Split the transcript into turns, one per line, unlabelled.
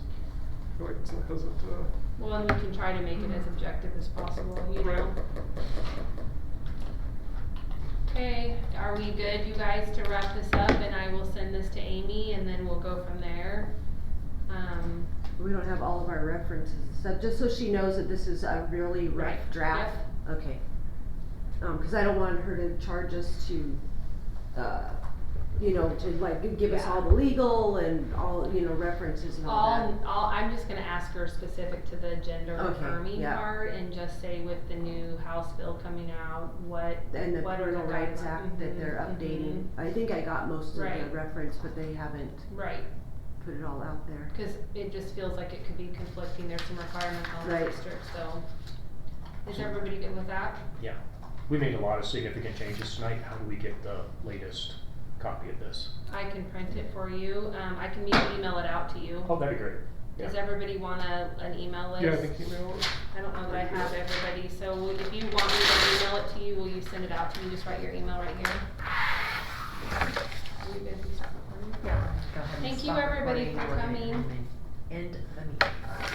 feel like it's a hesitant, uh,
Well, and we can try to make it as objective as possible, you
Right.
know? Okay, are we good, you guys, to wrap this up, and I will send this to Amy, and then we'll go from there? Um,
We don't have all of our references and stuff, just so she knows that this is a really rough
Right,
draft. Okay. Um, cause I don't want her to charge us to, uh, you know, to like give us
Yeah.
all the legal and all, you know, references and all that.
all, all, I'm just gonna ask her specific to the gender
Okay,
affirming
yeah.
part, and just say with the new House bill coming out, what,
And the
what are the
Parental Rights
guidelines?
Act that they're
Mhm,
updating. I think I got most of the
Right.
reference, but they haven't
Right,
put it all out there.
cause it just feels like it could be conflicting, there's some requirements on the
Right.
district, so. Is everybody good with that?
Yeah, we made a lot of significant changes tonight. How do we get the latest copy of this?
I can print it for you, um, I can e- email it out to you.
Oh, that'd be great.
Does everybody want a, an email list?
yeah, I think email,
I don't know that I have everybody, so will- if you want me to email it to you, will you send it out to me, just write your email right here? Will you guys be stopping for me?
Go ahead and
Thank you,
stop
everybody,
recording.
for
We're gonna
coming.
end the meeting.